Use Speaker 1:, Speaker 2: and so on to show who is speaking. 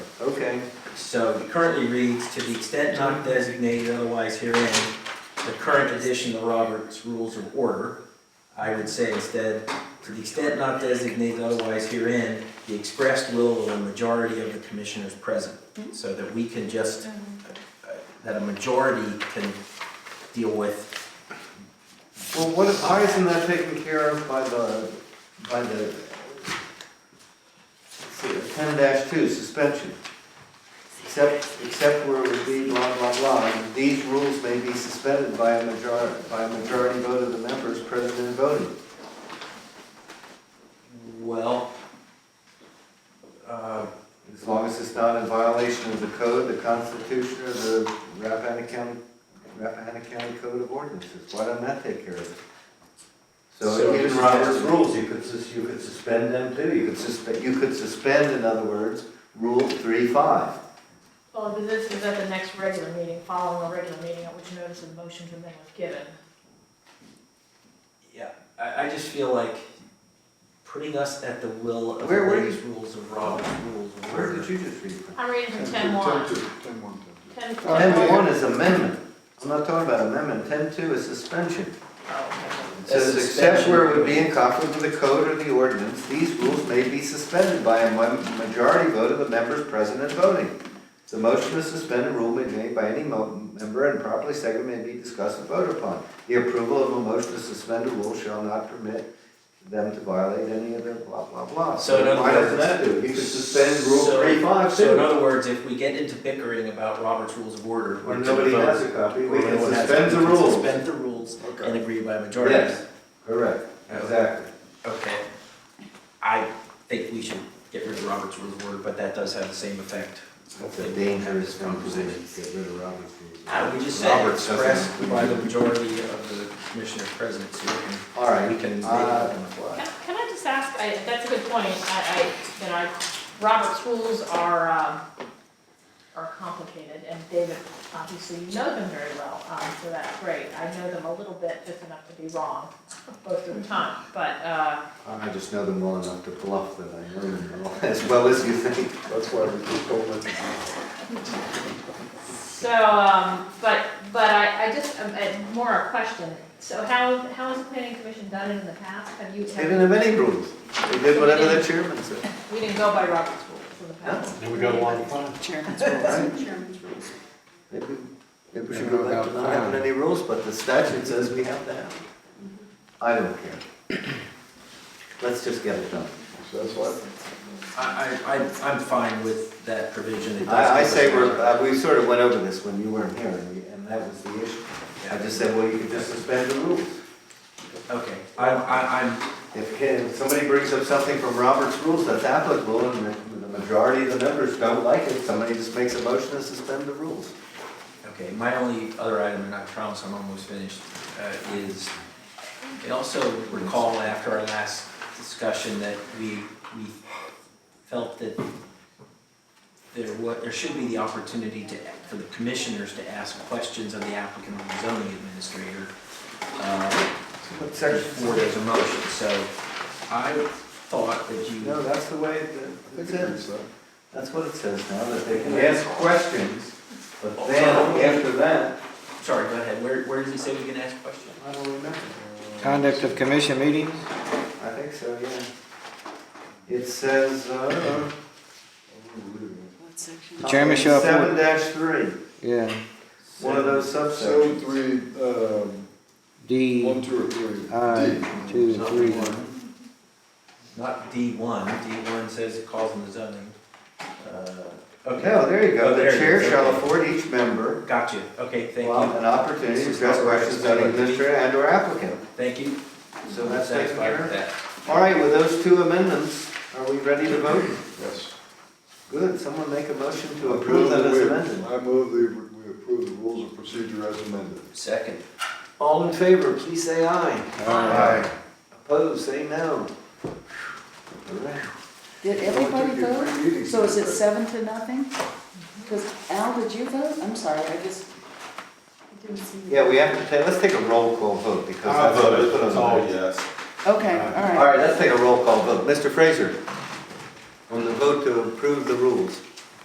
Speaker 1: Okay,
Speaker 2: So it currently reads, to the extent not designated otherwise herein, the current edition of Robert's Rules of Order, I would say instead, to the extent not designated otherwise herein, the expressed will of a majority of the commissioners present. So that we can just, uh, that a majority can deal with,
Speaker 1: well, what, why isn't that taken care of by the, by the ten two suspension? Except, except where it would be blah, blah, blah, and these rules may be suspended by a majority, by a majority vote of the members present and voting.
Speaker 2: well, uh,
Speaker 1: As long as it's not in violation of the code, the constitution, or the Rappahannock County, Rappahannock County Code of Ordinances, why doesn't that take care of it? So
Speaker 3: So
Speaker 1: even
Speaker 3: even
Speaker 1: Robert's
Speaker 3: Robert's rules, you could, sus- you could suspend them too, you
Speaker 1: You
Speaker 3: could.
Speaker 1: could suspend, you could suspend, in other words, Rule three five.
Speaker 4: Well, but this is at the next regular meeting, following a regular meeting, at which notice of motion to amend was given.
Speaker 2: yeah, I, I just feel like putting us at the will of the
Speaker 1: Where- where you-
Speaker 2: latest rules of Robert's Rules of Order.
Speaker 1: Where did you just read from?
Speaker 4: I'm reading from ten one.
Speaker 5: Ten two, ten one, ten two.
Speaker 4: Ten
Speaker 1: Oh, Ten
Speaker 4: ten one.
Speaker 1: one is amendment, I'm not talking about amendment, ten two is suspension. It says,
Speaker 2: That's
Speaker 1: except
Speaker 2: suspension.
Speaker 1: where it would be in conflict with the code or the ordinance, these rules may be suspended by a mo- majority vote of the members present and voting. The motion to suspend a rule may be made by any mo- member and properly seconded may be discussed and voted upon. The approval of a motion to suspend a rule shall not permit them to violate any of the blah, blah, blah.
Speaker 2: So in other
Speaker 1: Why doesn't
Speaker 2: words-
Speaker 1: that do? it? You could suspend Rule
Speaker 2: So-
Speaker 1: three five
Speaker 2: So in
Speaker 1: too.
Speaker 2: other words, if we get into bickering about Robert's Rules of Order, we're
Speaker 1: When
Speaker 2: to
Speaker 1: nobody
Speaker 2: vote.
Speaker 1: has a copy, we
Speaker 2: Or
Speaker 1: can
Speaker 2: everyone has it,
Speaker 1: suspend the
Speaker 2: we can
Speaker 1: rules.
Speaker 2: Suspend the rules and agree by majority.
Speaker 1: Yes, correct, exactly.
Speaker 2: Okay. I think we should get rid of Robert's Rules of Order, but that does have the same effect.
Speaker 1: That's a dangerous composition, get rid of Robert's rules.
Speaker 2: I would Ah, just say
Speaker 1: Roberts doesn't-
Speaker 2: expressed by the majority of the commissioners present, so we
Speaker 1: All right,
Speaker 2: can, we can make it
Speaker 1: uh,
Speaker 2: up on the fly.
Speaker 4: Can can I just ask, I, that's a good point, I, I, that I, Robert's rules are, um, are complicated, and David, obviously, you know them very well, um, so that's great. I know them a little bit, just enough to be wrong most of the time, but, uh,
Speaker 1: I just know them well enough to bluff that I know them well, as well as you think.
Speaker 5: That's why we keep going. with it.
Speaker 4: so, um, but, but I, I just, um, uh, more a question. So how, how has the planning commission done it in the past? Have you,
Speaker 1: They didn't have any rules. They did whatever the chairman said.
Speaker 4: we didn't go by Robert's rules in the past?
Speaker 3: Then we got a long time.
Speaker 6: Chairman's
Speaker 1: Right.
Speaker 6: rules, chairman's rules.
Speaker 1: Maybe maybe we should go back to not having any rules, but the statute says we have to have. them. I don't care. Let's just get it done.
Speaker 5: That's why.
Speaker 2: I, I, I- I'm fine with that provision. It does
Speaker 1: I, I
Speaker 2: give us-
Speaker 1: say we're, uh, we sort of went over this when you weren't here, and we- and that was the issue. I just said, well, you could just suspend the rules.
Speaker 2: Okay, I, I, I'm,
Speaker 1: If, if somebody brings up something from Robert's rules that's applicable and the- the majority of the members don't like it, somebody just makes a motion to suspend the rules.
Speaker 2: Okay, my only other item, and I promise I'm almost finished, uh, is, I also recall after our last discussion that we, we felt that there wa, there should be the opportunity to, for the commissioners to ask questions of the applicant or the zoning administrator, uh,
Speaker 1: What
Speaker 2: before there's a motion, so I thought that you.
Speaker 1: No, that's the way that it says.
Speaker 5: So,
Speaker 1: That's what it says now, that they can ask questions, but then after that.
Speaker 2: Sorry, go ahead, where, where does it say we can ask questions?
Speaker 1: I don't remember.
Speaker 7: Conduct of commission meetings?
Speaker 1: I think so, yeah. It says, uh.
Speaker 6: What section?
Speaker 7: The chairman shall
Speaker 1: Seven
Speaker 7: appoint-
Speaker 1: dash three,
Speaker 7: Yeah,
Speaker 1: one of those
Speaker 5: So
Speaker 1: subsections.
Speaker 5: three, um, one,
Speaker 7: D,
Speaker 5: two, or three.
Speaker 7: I,
Speaker 5: D.
Speaker 7: two,
Speaker 2: Not
Speaker 7: three.
Speaker 2: one. Not D one, D one says it calls on the zoning. Uh, Okay,
Speaker 1: No, there you go,
Speaker 2: Oh,
Speaker 1: the
Speaker 2: there it
Speaker 1: chair
Speaker 2: is,
Speaker 1: shall
Speaker 2: okay.
Speaker 1: afford each member
Speaker 2: got you, okay, thank
Speaker 1: Well,
Speaker 2: you,
Speaker 1: an opportunity to address questions on the administrator and or applicant.
Speaker 2: thank you.
Speaker 1: So that's taken
Speaker 2: Satisfied
Speaker 1: care
Speaker 2: with
Speaker 1: of.
Speaker 2: that.
Speaker 1: All right, with those two amendments, are we ready to vote?
Speaker 5: Yes.
Speaker 1: Good, someone make a motion to approve them as amended.
Speaker 5: I move that we approve the rules of procedure as amended.
Speaker 2: Second.
Speaker 1: All in favor, please say aye.
Speaker 5: Aye.
Speaker 1: Opposed, say no. All right.
Speaker 6: Did everybody vote? So is it seven to nothing? Because Al, did you vote? I'm sorry, I just didn't see. you.
Speaker 1: Yeah, we have to, ta- let's take a roll call vote because
Speaker 3: I
Speaker 1: that's what we put
Speaker 3: voted,
Speaker 1: on
Speaker 3: it's
Speaker 1: the
Speaker 3: all
Speaker 1: record.
Speaker 3: yes.
Speaker 6: Okay,
Speaker 1: All
Speaker 6: all right.
Speaker 1: right, let's take a roll call vote. Mr. Fraser, on the vote to approve the rules.